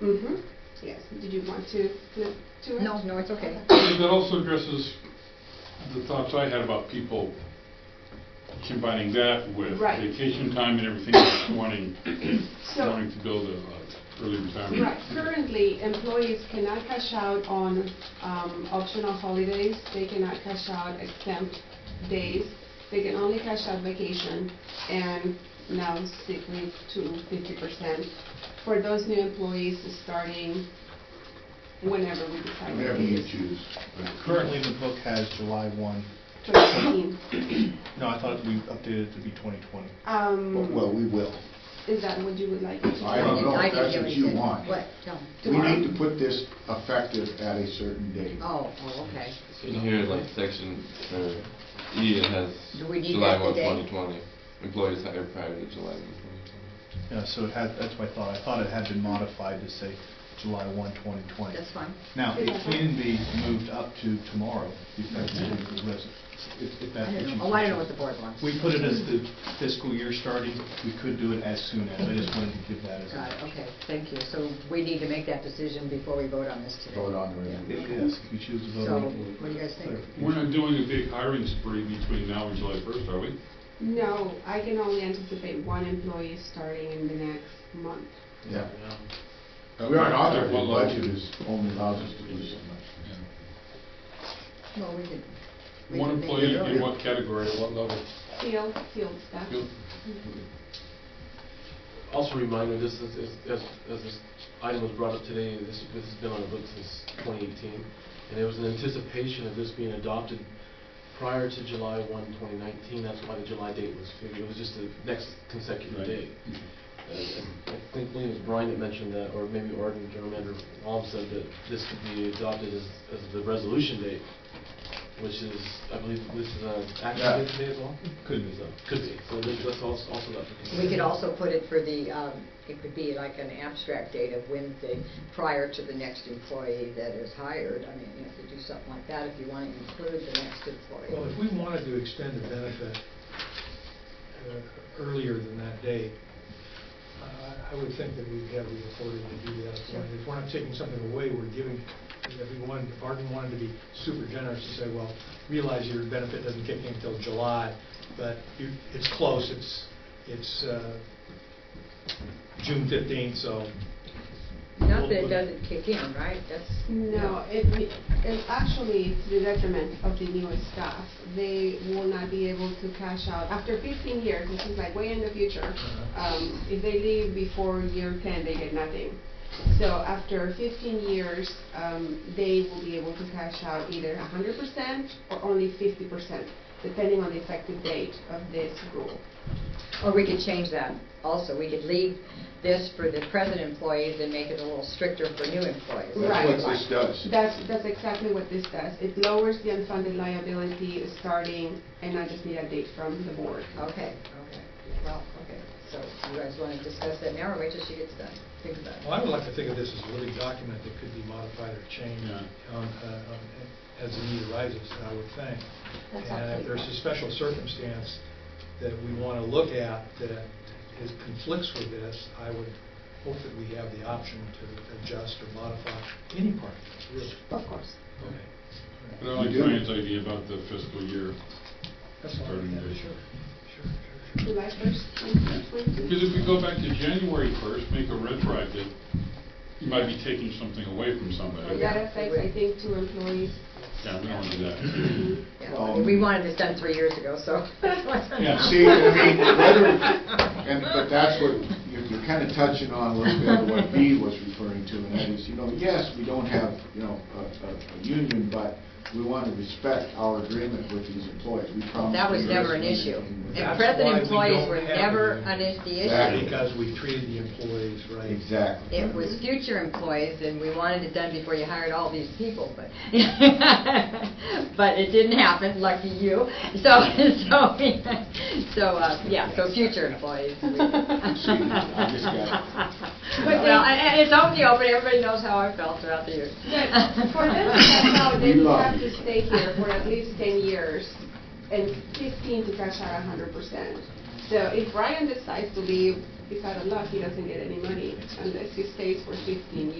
Mm-hmm, yes. Did you want to, no, to it? No, no, it's okay. That also addresses the thoughts I had about people combining that with Right. vacation time and everything, else, wanting, So, wanting to build a uh, early retirement. right, currently, employees cannot cash out on um, optional holidays, they cannot cash out exempt days, they can only cash out vacation, and now sick leave to fifty percent for those new employees starting whenever we decide. to Whatever you use choose. Currently, the book has July 1, 2018. no, I thought we updated it to be 2020. But- Um, Well, we will. is that what you would like? me to I do? don't did- know if I did that's hear what it you said- want. What, tell me. We Tomorrow? need to put this effective at a certain date. Oh, oh, okay. In here, like section, uh, E, it has Do we need July that one, today? twenty twenty. Employees hired prior to July one, twenty twenty. Yeah, so it had, that's my thought, I thought it had been modified to say July 1, 2020. That's fine. Now, it can be moved up to tomorrow, effectively, if if I that's what don't you... know, oh, I don't know what the board wants. We put it as the fiscal year starting, we could do it as soon as, I just wanted to give that as Got it, a... okay, thank you. So we need to make that decision before we vote on this today. Vote on it. Yeah. Yes, if you choose to vote So, on it. what do you guys think? We're not doing a big hiring spree between now and July first, are we? No, I can only anticipate one employee starting in the next month. Yeah. We aren't authorized, the Well, uh, budget is, only allows us to do so much. Well, we could. we One could make employee it in earlier. what category, at what level? Field, field staff. Field. Also a reminder, this is, is- as, as this item was brought up today, this, this has been on the book since 2018, and it was in anticipation of this being adopted prior to July 1, 2019, that's why the July date was figured, it was just the next consecutive Right. date. And I I think maybe it was Brian that mentioned that, or maybe Arden, General Manager Baum said that this could be adopted as, as the resolution date, which is, I believe, this is an Yeah. action date today as well? Could be. So, Could be, so this- that's also, also up for consideration. We could also put it for the, um, it could be like an abstract date of when the, prior to the next employee that is hired. I mean, you know, if you do something like that, if you want to include the next Well, employee. if we wanted to extend the benefit uh, earlier than that date, uh, I would think that we'd have the authority to do that. So If we're not taking something away, we're giving everyone, if Arden wanted to be super generous and say, well, realize your benefit doesn't kick in until July, but you- it's close, it's, it's uh, June 15th, so Not that it doesn't kick in, right? That's. No, it, it actually it's the detriment of the newest staff. They will not be able to cash out. After 15 years, this is like way in the future, Uh, um, if they leave before year 10, they get nothing. So after 15 years, um, they will be able to cash out either 100% or only 50%, depending on the effective date of this rule. Or we could change that also. We could leave this for the present employees and make it a little stricter for new employees. Right. That's what this uh, does. That's, that's exactly what this does. It lowers the unfunded liability starting, and I just need a date from the board. Okay, okay. Well, okay. So you guys want to discuss that now or wait till she gets done? Think about Well, it. I would like to think of this as a living document that could be modified or changed Yeah. on, uh, on- as the need arises, I would think. That's And absolutely if there's a fine. special circumstance that we want to look at that is conflicts with this, I would hope that we have the option to adjust or modify any part of this, really. Of course. Okay. I like You do. Brian's idea about the fiscal year. That's all. Starting Yeah, date. Sure, sure, sure, sure. July first, twenty twenty. Because if we go back to January first, make a retroactive, you might be taking something away from somebody. That affects, I think, two employees. Yeah, we don't want to do that. Yeah, I mean, We wanted this done three years ago, so. Yeah, See, I mean, whether, and, but that's what, you're, you're kind of touching on a little bit of what Dee was referring to, and that is, you know, yes, we don't have, you know, a, a, a union, but we want to respect our agreement with these employees. We promise. That was to do never an this. issue. And That's present why we employees don't were have it. never an is- the Exactly. issue. Because we treated the employees right. Exactly. It was future employees, and we wanted it done before you hired all these people, but, but it didn't happen, lucky you. So, so, so, uh, yeah, so future employees. we- I just got But, well, I- I- it's out in the open, everybody knows how I felt throughout the years. But for them to cash out, they We will love have you. to stay here for at least ten years and fifteen to cash out a hundred percent. So if Brian decides to leave, he's out of luck, he doesn't get any money unless he stays for fifteen years.